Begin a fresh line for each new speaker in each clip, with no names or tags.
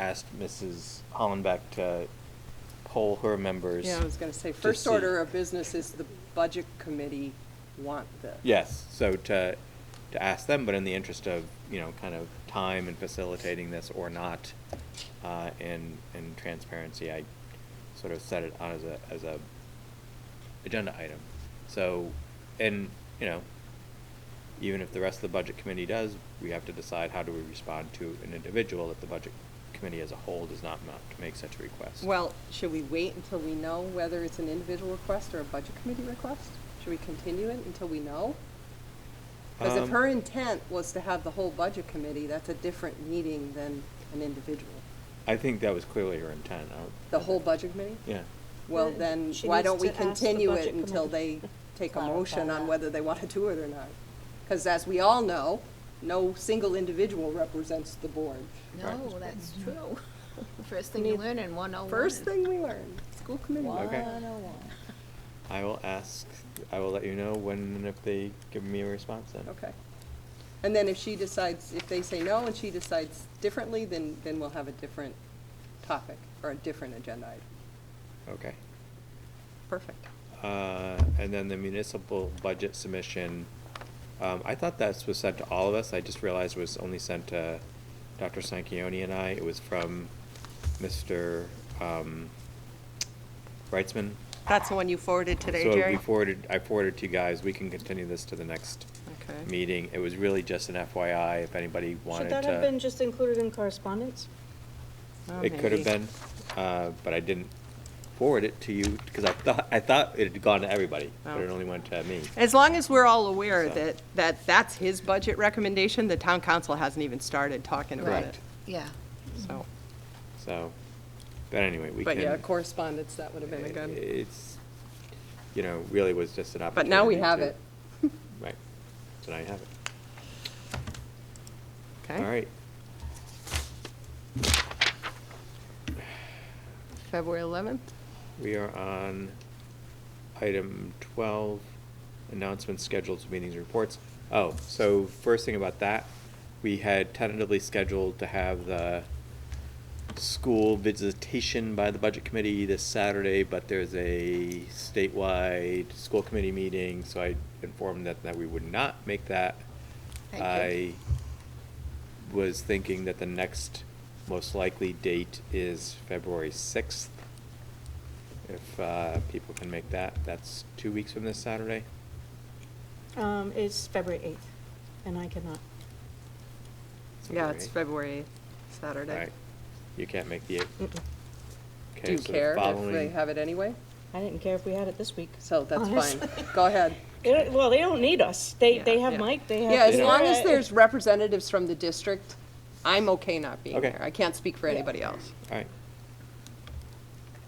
asked Mrs. Hollenbeck to poll her members.
Yeah, I was gonna say,
to
first
see.
order of business is the budget committee want this.
Yes, so to, to ask them, but in the interest of, you know, kind of time and facilitating this or not, uh, and, and transparency, I sort of set it on as a, as a agenda item. So, and, you know, even if the rest of the budget committee does, we have to decide how do we respond to an individual if the budget committee as a whole does not mount to make such a request.
Well, should we wait until we know whether it's an individual request or a budget committee request? Should we continue it until we know? Because if
Um,
her intent was to have the whole budget committee, that's a different meeting than an individual.
I think that was clearly her intent. I don't-
The whole budget committee?
Yeah.
Well,
Then
then,
she
why
needs
don't we
to ask the
continue it
budget
until they
committee
take a
clarify
motion on
that.
whether they want to do it or not? Because as we all know, no single individual represents the board.
Right.
No, that's true. First thing you
Need-
learn in 101.
Mm-hmm. First thing we learned, school committee.
Okay.
101.
I will ask, I will let you know when and if they give me a response then.
Okay. And then if she decides, if they say no and she decides differently, then, then we'll have a different topic or a different agenda item.
Okay.
Perfect.
Uh, and then the municipal budget submission, um, I thought that was sent to all of us. I just realized it was only sent to Dr. Sanquioni and I. It was from Mr. um, Reitzman.
That's the one you forwarded
So we forwarded, I forwarded to you guys. We can continue this to the next
Okay.
meeting. It was really just an FYI if anybody wanted to.
Should that have been just included in correspondence?
It could have been, uh, but I didn't forward it to you, because I thought, I thought it had gone to everybody, but it
Oh.
only went to me.
As long as we're all aware
So-
that, that that's his budget recommendation, the town council hasn't even started talking about it,
Correct.
Yeah.
so.
So, but anyway, we can.
But yeah, correspondence, that would have been a good,
It's, you know, really was just an
but
opportunity.
now we have
to-
it,
Right, so now you have it.
okay?
All right,
February eleventh?
we are on item twelve, announcements, schedules, meetings, reports. Oh, so first thing about that, we had tentatively scheduled to have the school visitation by the budget committee this Saturday, but there's a statewide school committee meeting, so I informed that, that we would not make that.
Thank
I
you.
was thinking that the next most likely date is February sixth. If, uh, people can make that, that's two weeks from this Saturday.
Um, it's February eighth, and I cannot.
Yeah,
February
it's February eighth,
eighth.
Saturday.
Right, you can't make the eighth.
Mm-mm.
Okay,
Do you
so the
care if they
following-
have it anyway?
I didn't care if we had it this week.
So that's fine.
honestly.
Go ahead.
They don't- Well, they don't need us. They, they have Mike, they have.
Yeah, as
They
long
Laura.
as there's representatives from the district, I'm okay not being
Okay.
there. I can't speak for anybody else.
All right,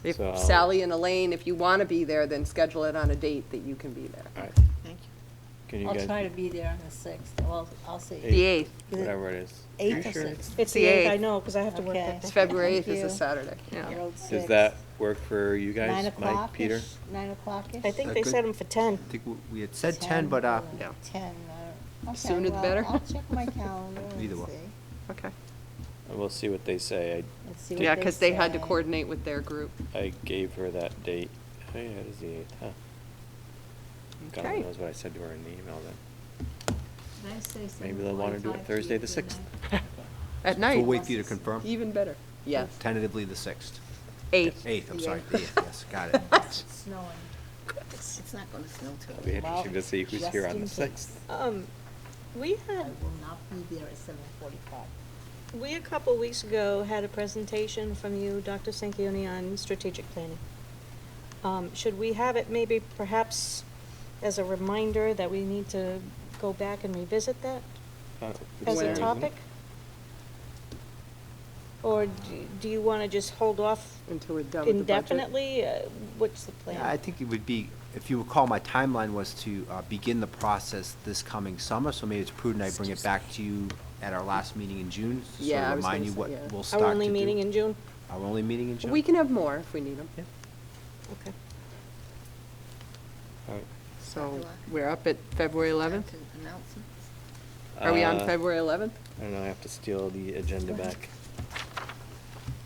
If
So I'll-
Sally and Elaine, if you want to be there, then schedule it on a date that you can be
all
there.
right,
Thank you.
can you
I'll
guys?
try to be there on the sixth, well, I'll see.
Eight.
The eighth,
Whatever it is.
Eighth
You
or
sure?
sixth?
It's
the
the eighth, I
8th.
know, because I have to work
Okay.
that
It's
day.
February eighth
Thank
is a
you.
Saturday,
You're
yeah.
old
Does
six.
that work for you
Nine
guys, Mike,
o'clock-ish?
Peter?
Nine o'clock-ish?
I think
Uh,
they
good.
set them for ten.
I think w- we had said 10, but uh,
or
Yeah.
Ten, I don't-
Sooner
okay,
the better.
well, I'll check my calendar
Either
and
one.
see.
Okay.
And We'll see what they say.
Let's see what
Yeah, because they had to
say.
coordinate with their group.
I, I gave her that date. Oh, yeah, it is the eighth, huh? God
Okay.
only knows what I said to her in the email then.
Can I say something
Maybe they'll wanna do it
one-time
Thursday the
to you
sixth.
At
we'll
night,
wait for you to confirm.
even better. Yes,
Tentatively the 6th.
eighth.
8th, I'm
The
sorry,
eighth.
the 8th, yes, got it.
tonight? It's Snowing.
It's it's not going to snow till.
It'll be interesting to
Well,
see who's
just
here on
in
the
case.
sixth.
Um, we
I
had,
will not be there at seven forty-five.
we a couple weeks ago had a presentation from you, Dr. Sanquioni, on strategic planning. Um, should we have it maybe perhaps as a reminder that we need to go back and revisit that?
Uh,
as
Where
a
is it?
topic? Or do- do you want to just hold off
Until we're done with the budget.
indefinitely? Uh, What's the plan?
Yeah, I think it would be, if you recall, my timeline was to uh, begin the process this coming summer, so maybe it's prudent I bring it back to you at our last meeting in June, to sort
Yeah, I
of
was gonna
remind you
say,
what
yeah.
we'll start
Our
to do.
only meeting in June?
Our only meeting in June?
We can have more if we need them.
Yeah.
Okay.
all right.
So we're up at February eleventh?
Announcements.
Are we on
Uh,
February eleventh?
I don't know, I have to steal the agenda back.